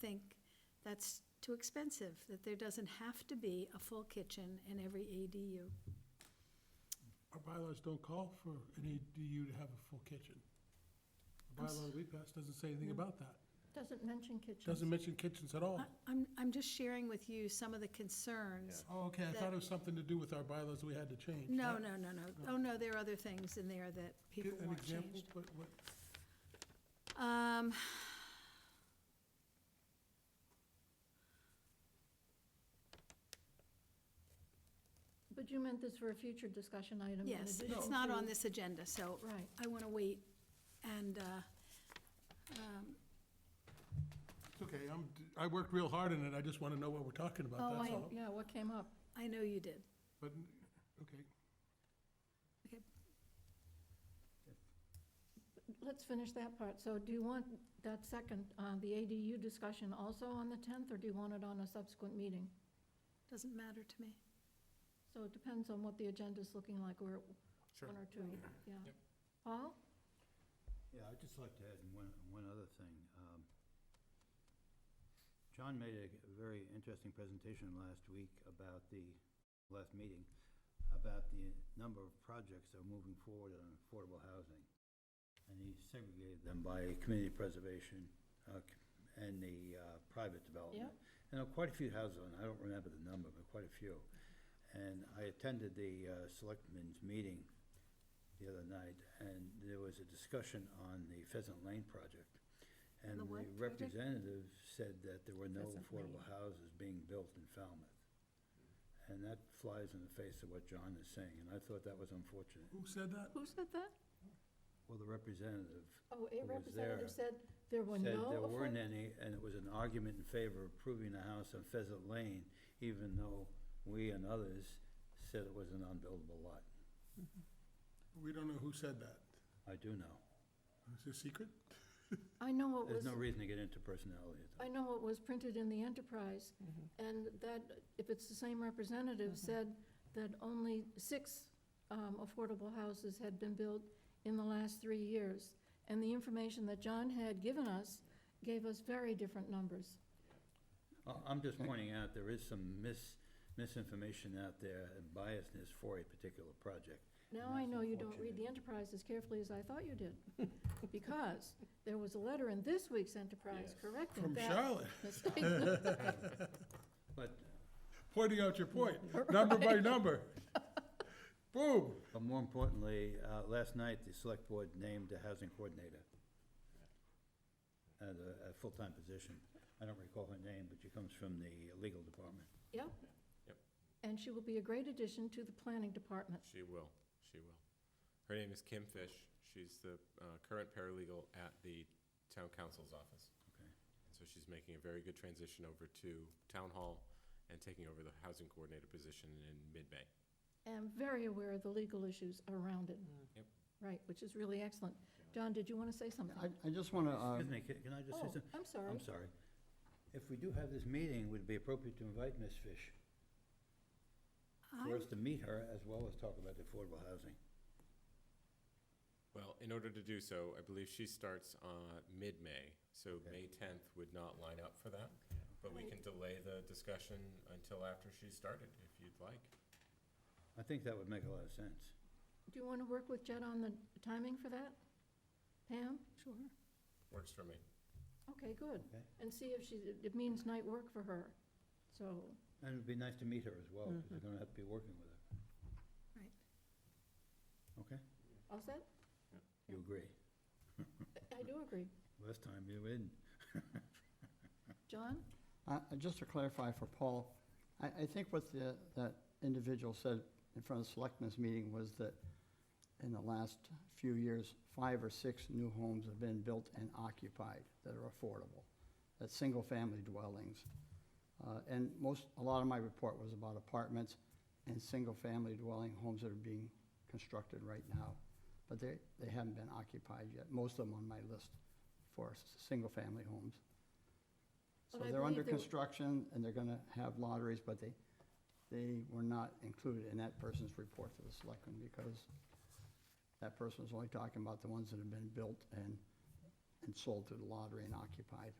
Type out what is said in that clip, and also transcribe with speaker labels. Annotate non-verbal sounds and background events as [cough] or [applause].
Speaker 1: think that's too expensive, that there doesn't have to be a full kitchen in every ADU.
Speaker 2: Our bylaws don't call for an ADU to have a full kitchen. The
Speaker 1: I'm s- Mm.
Speaker 2: bylaw that we passed doesn't say anything about that.
Speaker 3: Doesn't mention kitchens.
Speaker 2: Doesn't mention kitchens at all.
Speaker 1: I- I'm, I'm just sharing with you some of the concerns.
Speaker 2: Oh, okay, I thought it was something to do with our bylaws we had to change.
Speaker 1: No,
Speaker 2: Not-
Speaker 1: no, no, no. Oh, no, there are other things in there that people
Speaker 2: Give an
Speaker 1: want
Speaker 2: example,
Speaker 1: changed.
Speaker 2: but what,
Speaker 1: Um,
Speaker 3: But you meant this for a future discussion item. in
Speaker 1: Yes,
Speaker 3: addition
Speaker 1: it's not on
Speaker 3: to-
Speaker 1: this agenda, so
Speaker 3: Right.
Speaker 1: I want to wait and, uh, um,
Speaker 2: it's okay, I'm, I worked real hard on it, I just want to know what we're talking
Speaker 3: Oh,
Speaker 2: about, that's
Speaker 3: I,
Speaker 2: all.
Speaker 3: yeah, what came up?
Speaker 1: I know you did.
Speaker 2: But, okay,
Speaker 3: Let's finish that part. So do you want that second, uh, the ADU discussion also on the 10th, or do you want it on a subsequent meeting?
Speaker 1: Doesn't matter to me.
Speaker 3: So it depends on what the agenda's looking like, or one or two, yeah.
Speaker 2: Yep.
Speaker 3: Paul?
Speaker 4: Yeah, I'd just like to add one, one other thing. Um, John made a very interesting presentation last week about the, last meeting, about the number of projects that are moving forward on affordable housing. And he segregated them by community preservation uh, c- and the uh, private development. And there were quite a few houses, on. I don't remember the number, but quite a few. And I attended the uh, selectmen's meeting the other night, and there was a discussion on the Pheasant Lane project. And
Speaker 1: The
Speaker 4: the
Speaker 1: what project?
Speaker 4: representative said that there were no
Speaker 1: Pheasant Lane.
Speaker 4: affordable houses being built in Falmouth. And that flies in the face of what John is saying, and I thought that was unfortunate.
Speaker 2: who said that?
Speaker 3: Who said that?
Speaker 4: Well, the representative
Speaker 3: Oh,
Speaker 4: Who
Speaker 3: a
Speaker 4: was
Speaker 3: representative
Speaker 4: there?
Speaker 3: said there were
Speaker 4: said
Speaker 3: no.
Speaker 4: there weren't
Speaker 3: affordable-
Speaker 4: any, and it was an argument in favor of approving a house on Pheasant Lane, even though we and others said it was an unbuildable lot.
Speaker 2: We don't know who said that.
Speaker 4: I do know.
Speaker 2: Is it a secret?
Speaker 3: I know it was.
Speaker 4: There's no reason to get into personality at
Speaker 3: I
Speaker 4: all.
Speaker 3: know it was printed in the Enterprise,
Speaker 4: Mm-hmm.
Speaker 3: and that, if it's the same representative, said that only six um, affordable houses had been built in the last three years. And the information that John had given us gave us very different numbers.
Speaker 4: I- I'm just pointing out, there is some mis, misinformation out there and biasness for a particular project.
Speaker 3: Now
Speaker 4: And
Speaker 3: I
Speaker 4: that's
Speaker 3: know you don't read the
Speaker 4: unfortunate.
Speaker 3: Enterprise as carefully as I thought you did,
Speaker 4: [laughs]
Speaker 3: because there was a letter in this week's Enterprise correcting
Speaker 2: From
Speaker 3: that
Speaker 2: Charlotte, [laughs]
Speaker 4: [laughs]
Speaker 3: mistake.
Speaker 4: But,
Speaker 2: pointing out
Speaker 1: [laughs]
Speaker 2: your point, number by number. Boom,
Speaker 4: but more importantly, uh, last night, the select board named a housing coordinator as a, a full-time position. I don't recall her name, but she comes from the legal department.
Speaker 3: Yep.
Speaker 5: Yep.
Speaker 3: And she will be a great addition to the planning department.
Speaker 5: She will, she will. Her name is Kim Fish. She's the uh, current paralegal at the town council's office.
Speaker 4: Okay.
Speaker 5: So she's making a very good transition over to town hall and taking over the housing coordinator position in mid-May.
Speaker 3: am very aware of the legal issues around it.
Speaker 5: Yep.
Speaker 3: Right, which is really excellent. John, did you want to say
Speaker 6: I,
Speaker 3: something?
Speaker 6: I just uh, want
Speaker 2: Uh, um,
Speaker 4: Excuse
Speaker 6: to,
Speaker 4: me, ca- can I just say
Speaker 3: Oh,
Speaker 4: something?
Speaker 3: I'm sorry.
Speaker 4: I'm sorry. If we do have this meeting, would it be appropriate to invite Ms. Fish for
Speaker 1: I,
Speaker 4: us to meet her as well as talk about the affordable housing?
Speaker 5: Well, in order to do so, I believe she starts uh, mid-May, so May 10th would not line up for that. But we can delay the discussion until after she's started, if you'd like.
Speaker 4: I think that would make a lot of sense.
Speaker 3: Do you want to work with Jed on the timing for that? Pam?
Speaker 1: sure.
Speaker 5: Works for me.
Speaker 3: Okay, good.
Speaker 4: Okay.
Speaker 3: And see if she, it means night work for her. So,
Speaker 4: And it'd be nice to meet her as well, because we're gonna have to be working with her,
Speaker 1: Right.
Speaker 4: okay?
Speaker 3: all set?
Speaker 4: You agree?
Speaker 3: I do agree.
Speaker 4: Last time you didn't.
Speaker 3: John?
Speaker 6: uh, just to clarify for Paul, I, I think what the, that individual said in front of the selectmen's meeting was that in the last few years, five or six new homes have been built and occupied that are affordable, that's uh, single-family dwellings. Uh, And most, a lot of my report was about apartments and single-family dwelling homes that are being constructed right now. But they, they haven't been occupied yet, most of them on my list for s- single-family homes. So
Speaker 3: But I
Speaker 6: they're under
Speaker 3: believe they were-
Speaker 6: construction and they're gonna have lotteries, but they, they were not included in that person's report to the selectmen because that person was only talking about the ones that have been built and, and sold through the lottery and occupied.